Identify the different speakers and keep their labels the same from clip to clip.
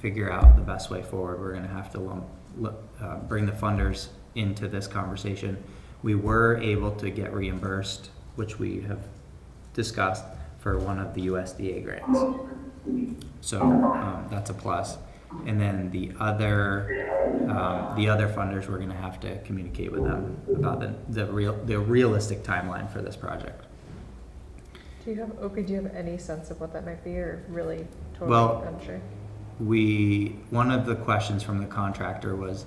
Speaker 1: figure out the best way forward. We're gonna have to lump, lu- uh, bring the funders into this conversation. We were able to get reimbursed, which we have discussed, for one of the USDA grants. So um, that's a plus. And then the other, um, the other funders, we're gonna have to communicate with them about the, the real, the realistic timeline for this project.
Speaker 2: Do you have, Opie, do you have any sense of what that might be or really
Speaker 1: Well-
Speaker 2: totally unsure?
Speaker 1: We, one of the questions from the contractor was,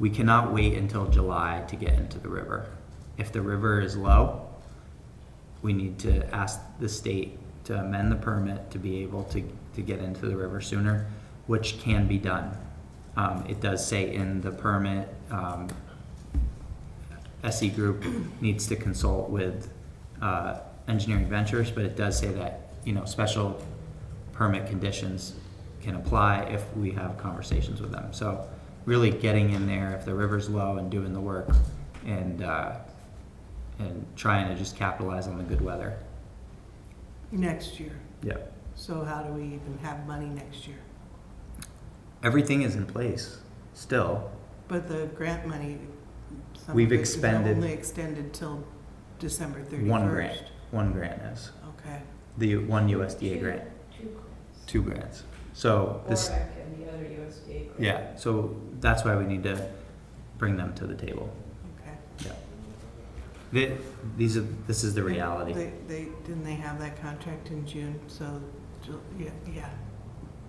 Speaker 1: we cannot wait until July to get into the river. If the river is low, we need to ask the state to amend the permit to be able to, to get into the river sooner, which can be done. Um, it does say in the permit, um, SE Group needs to consult with, uh, Engineering Ventures, but it does say that, you know, special permit conditions can apply if we have conversations with them. So really getting in there if the river's low and doing the work and, uh, and trying to just capitalize on the good weather.
Speaker 3: Next year.
Speaker 1: Yeah.
Speaker 3: So how do we even have money next year?
Speaker 1: Everything is in place still.
Speaker 3: But the grant money, some of
Speaker 1: We've
Speaker 3: it is
Speaker 1: expended-
Speaker 3: only extended till December thirty-first.
Speaker 1: One grant, one grant is,
Speaker 3: Okay,
Speaker 1: the one USDA
Speaker 4: Two-
Speaker 1: grant,
Speaker 4: Two grants.
Speaker 1: two grants. So this,
Speaker 4: Borac and the other USDA grant.
Speaker 1: yeah, so that's why we need to bring them to the table.
Speaker 3: okay.
Speaker 1: Th these are, this is the reality.
Speaker 3: They, they, didn't they have that contract in June? So, Ju- yeah, yeah,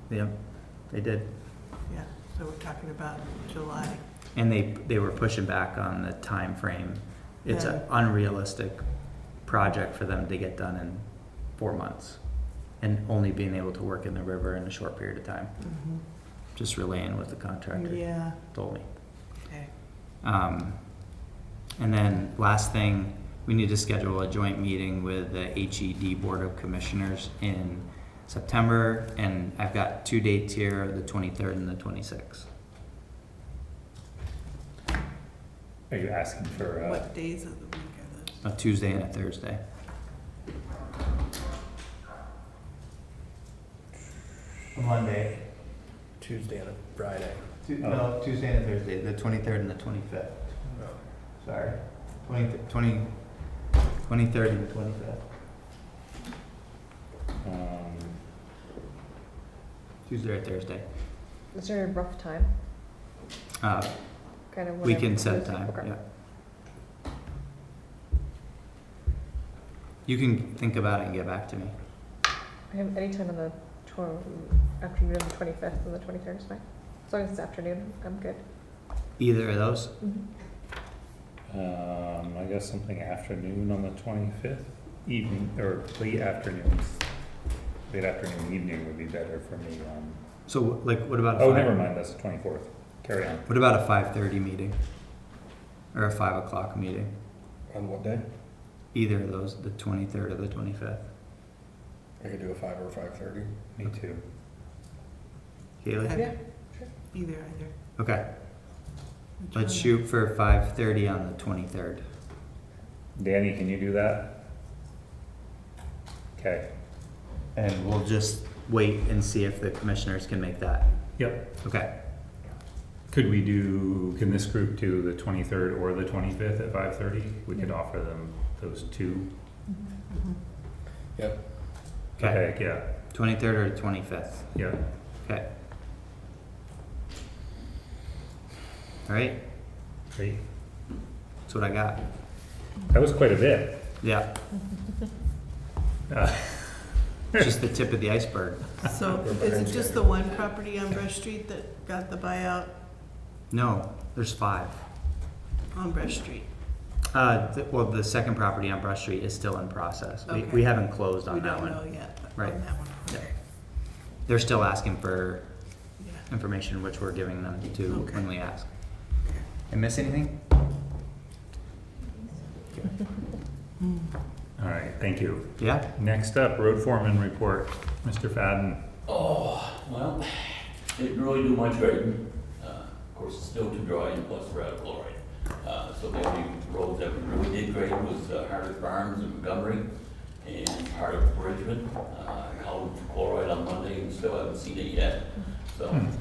Speaker 1: Yeah, they did.
Speaker 3: yeah. So we're talking about July.
Speaker 1: And they, they were pushing back on the time frame. It's an unrealistic project for them to get done in four months. And only being able to work in the river in a short period of time,
Speaker 3: Mhm.
Speaker 1: just relaying what the contractor
Speaker 3: Yeah,
Speaker 1: told me.
Speaker 3: okay.
Speaker 1: Um, and then last thing, we need to schedule a joint meeting with the HED Board of Commissioners in September. And I've got two dates here, the twenty-third and the twenty-sixth.
Speaker 5: Are you asking for, uh,
Speaker 3: What days of the week are those?
Speaker 1: a Tuesday and a Thursday. Monday,
Speaker 5: Tuesday and a Friday?
Speaker 1: Tu- no, Tuesday and a Thursday, the twenty-third and the twenty-fifth, sorry, twenty, twenty, twenty-third and twenty-fifth,
Speaker 5: Um,
Speaker 1: Tuesday or Thursday.
Speaker 2: Is there a rough time?
Speaker 1: Uh,
Speaker 2: Kind of
Speaker 1: we
Speaker 2: whenever-
Speaker 1: can set a time,
Speaker 2: Okay.
Speaker 1: yeah. You can think about it and get back to me.
Speaker 2: I have any time on the tw- afternoon of the twenty-fifth and the twenty-third is fine. As long as it's afternoon, I'm good.
Speaker 1: Either of those,
Speaker 5: Um, I got something afternoon on the twenty-fifth, evening, or late afternoons. Late afternoon, evening would be better for me, um,
Speaker 1: so like, what about a
Speaker 5: oh, never
Speaker 1: five-
Speaker 5: mind, that's the twenty-fourth, carry on.
Speaker 1: What about a five-thirty meeting? Or a five o'clock meeting?
Speaker 6: On what day?
Speaker 1: Either of those, the 23rd or the 25th.
Speaker 6: I could do a five or five thirty.
Speaker 5: Me too.
Speaker 1: Haley?
Speaker 3: Have-
Speaker 2: Yeah, sure.
Speaker 3: Either, either.
Speaker 1: Okay,
Speaker 3: Which
Speaker 1: let's
Speaker 3: one?
Speaker 1: shoot for 5:30 on the 23rd.
Speaker 5: Danny, can you do that? Okay.
Speaker 1: And we'll just wait and see if the commissioners can make that.
Speaker 5: Yep.
Speaker 1: Okay,
Speaker 5: Could we do, can this group do the twenty-third or the twenty-fifth at five-thirty? We could
Speaker 3: Yeah.
Speaker 5: offer them those two.
Speaker 3: Mhm.
Speaker 1: okay,
Speaker 5: Yeah,
Speaker 1: 23rd or 25th,
Speaker 5: yeah.
Speaker 1: okay. All right,
Speaker 5: Great.
Speaker 1: that's what I got.
Speaker 5: That was quite a bit.
Speaker 1: Yeah,
Speaker 5: Uh,
Speaker 1: just the tip of the iceberg.
Speaker 3: So is it just the one property on Brush Street that got the buyout
Speaker 1: No, there's five.
Speaker 3: on Brush Street?
Speaker 1: Uh, th- well, the second property on Brush Street is still in process. We,
Speaker 3: Okay.
Speaker 1: we haven't closed on
Speaker 3: We
Speaker 1: that one.
Speaker 3: don't know yet
Speaker 1: Right.
Speaker 3: on that one. Okay.
Speaker 1: They're still asking for
Speaker 3: Yeah.
Speaker 1: information which we're giving them to
Speaker 3: Okay.
Speaker 1: when we ask. I miss anything?
Speaker 5: All right, thank you.
Speaker 1: Yeah?
Speaker 5: Next up, road foreman report, Mr. Fadden.
Speaker 7: Oh, well, didn't really do much grading. Uh, Of course, it's still too dry and plus we're out of chloride. Uh, So the only roads that we really did grade was uh, Harvard Farms and Montgomery and part of Bridgman. Uh, I called for chloride on Monday and still haven't seen it yet. So